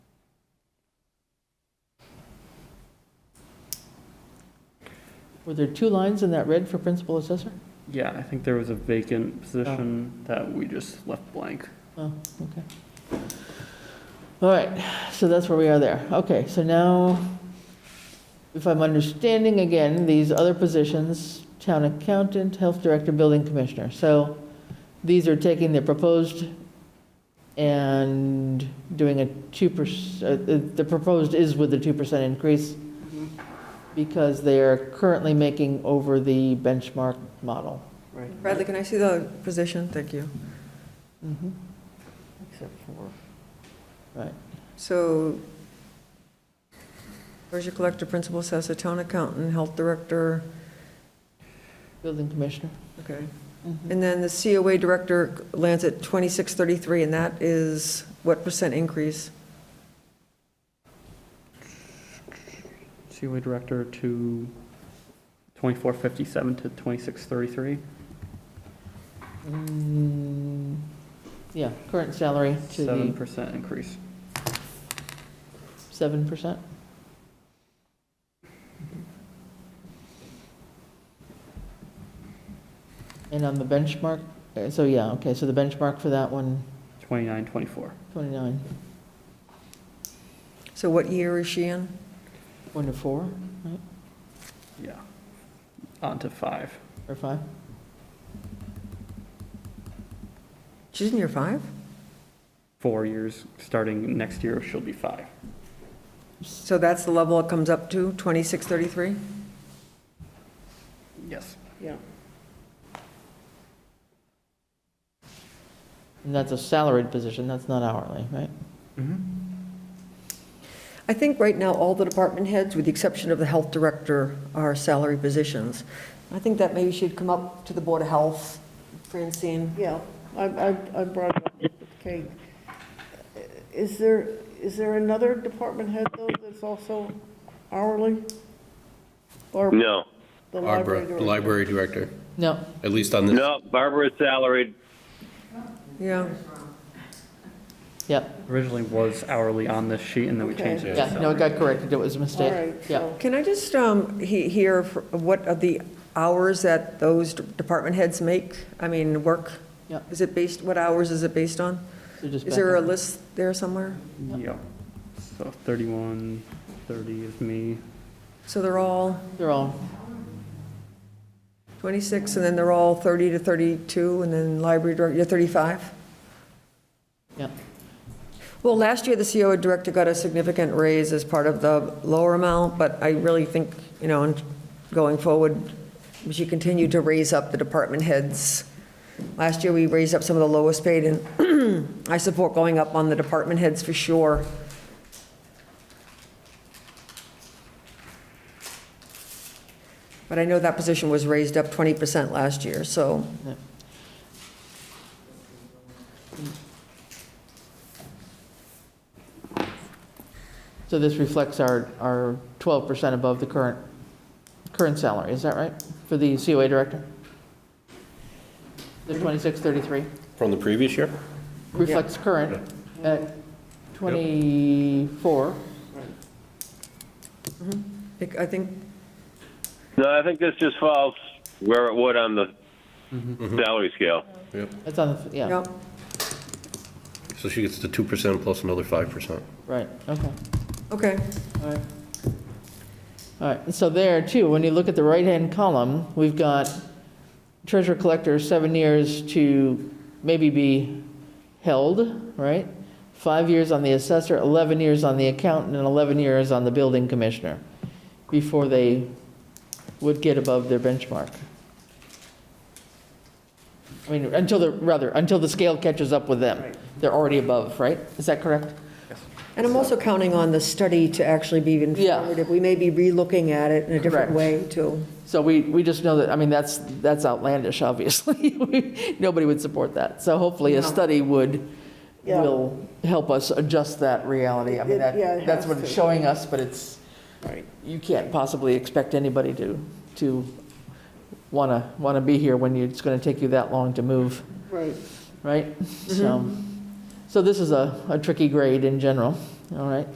Were there two lines in that red for principal assessor? Yeah, I think there was a vacant position that we just left blank. Oh, okay. All right, so that's where we are there. Okay, so now, if I'm understanding again, these other positions, town accountant, health director, building commissioner. So these are taking the proposed and doing a 2%, uh, the proposed is with the 2% increase because they are currently making over the benchmark model. Right. Bradley, can I see the position? Thank you. Mhm. Except for. Right. So, treasure collector, principal assessor, town accountant, health director, Building commissioner. okay. Mhm. And then the COA director lands at 2633, and that is what percent increase? COA director to twenty-four fifty-seven to twenty-six thirty-three. Mm, Yeah, current salary to Seven the percent increase. seven percent. And on the benchmark, uh, so yeah, okay, so the benchmark for that one, Twenty-nine, twenty-four. 29, So what year is she in? one to four, Yeah. On to five. or five? She's in year five? Four years, starting next year, she'll be five. So that's the level it comes up to, 2633? Yes. And that's a salaried position, that's not hourly, right? Mm-hmm. I think right now, all the department heads, with the exception of the health director, are salary positions. I think that maybe should come up to the Board of Health, Francine. Yeah, I, I, I brought it up with Kate. Is there, is there another department head though that's also hourly? Or No, the library Barbara, director? library director, No, at least on this. no, Barbara's salaried. Yeah, yep, Originally was hourly on this sheet, and then we Okay. changed it. to yeah, no, it salary. got corrected, it was a All mistake. right, Yeah, so, can I just um, he- hear fr- what are the hours that those d- department heads make? I mean, work? Yeah. Is it based, what hours is it based on? so just Is back there a up. list there somewhere? Yeah. So thirty-one, thirty is me. So they're all They're all, 26, and then they're all 30 to 32, and then library director, you're 35? yeah, Well, last year, the COA director got a significant raise as part of the lower amount, but I really think, you know, in going forward, we should continue to raise up the department heads. Last year, we raised up some of the lowest paid, and I support going up on the department heads for sure. But I know that position was raised up 20% last year, so yeah. So this reflects our, our 12% above the current, current salary, is that right? For the COA director? The 2633 From the previous year? reflects current at 24, I I think No, I think this just falls where it would on the salary scale. Yep. that's on, the yeah, Yep. So she gets the 2% plus another 5%. right, okay. Okay. All right. All right, and so there too, when you look at the right-hand column, we've got treasurer collector, seven years to maybe be held, right? Five years on the assessor, 11 years on the accountant, and 11 years on the building commissioner before they would get above their benchmark. I mean, until the, rather, until the scale catches up with them. They're already above, right? Is that correct? And I'm also counting on the study to actually be informative. We may be relooking at it in a Correct. different way, too. So we, we just know that, I mean, that's, that's outlandish, obviously. We- Nobody would support that. So hopefully a No. study would, Yeah. will help us adjust that reality. I mean, It- that, yeah, it that's has what it's to. showing us, but it's, Right. you can't possibly expect anybody to, to want to, want to be here when you- it's going to take you that long to move, Right, Mm-hmm. right? So, so this is a, a tricky grade in general, all right?